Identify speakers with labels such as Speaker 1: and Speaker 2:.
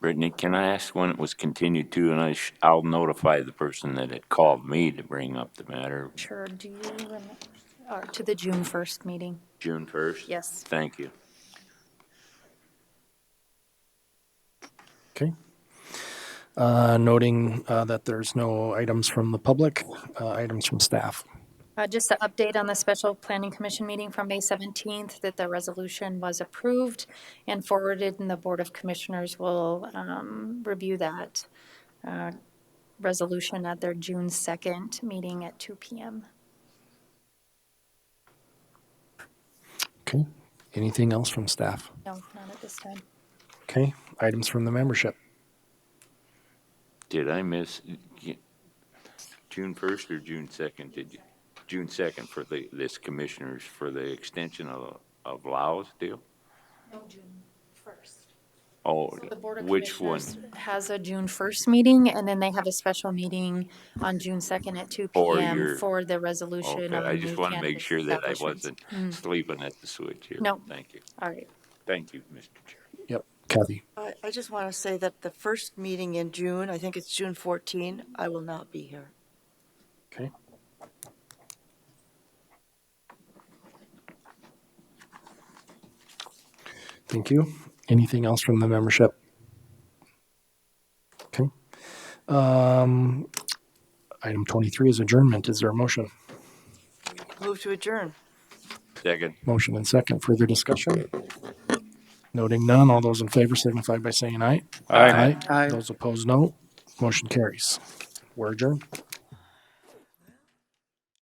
Speaker 1: Brittany, can I ask when it was continued to, and I sh- I'll notify the person that had called me to bring up the matter,
Speaker 2: Sure, do you, rem- or to the June 1st meeting?
Speaker 1: June first?
Speaker 2: Yes.
Speaker 1: Thank you.
Speaker 3: Okay. Uh, Noting uh, that there's no items from the public, uh, items from staff.
Speaker 2: Uh, Just an update on the special planning commission meeting from May 17th, that the resolution was approved and forwarded, and the Board of Commissioners will um, review that uh, resolution at their June 2nd meeting at 2 PM.
Speaker 3: Okay. Anything else from staff?
Speaker 2: No, not at this time.
Speaker 3: Okay. Items from the membership.
Speaker 1: Did I miss, June first or June second, did you? June second for the, this commissioners for the extension of, of Laos deal?
Speaker 2: No, June 1st.
Speaker 1: Oh,
Speaker 2: The Board of
Speaker 1: which one?
Speaker 2: Commissioners has a June 1st meeting, and then they have a special meeting on June 2nd at 2
Speaker 1: For
Speaker 2: PM
Speaker 1: your-
Speaker 2: for the resolution
Speaker 1: Okay,
Speaker 2: of
Speaker 1: I
Speaker 2: the
Speaker 1: just
Speaker 2: new
Speaker 1: want to make
Speaker 2: cannabis
Speaker 1: sure that I
Speaker 2: um, establishments.
Speaker 1: wasn't sleeping at the switch here.
Speaker 2: Mm. No.
Speaker 1: Thank you.
Speaker 2: All right.
Speaker 1: Thank you, Mr. Chair.
Speaker 3: Yep. Kathy.
Speaker 4: I, I just want to say that the first meeting in June, I think it's June 14, I will not be here.
Speaker 3: Okay. Thank you. Anything else from the membership? Okay. Um, Item 23 is adjournment. Is there a motion?
Speaker 4: Move to adjourn.
Speaker 1: Second.
Speaker 3: Motion and second. Further discussion? Noting none, all those in favor signify by saying aye.
Speaker 1: Aye.
Speaker 3: Those opposed, no. Motion carries. We're adjourned.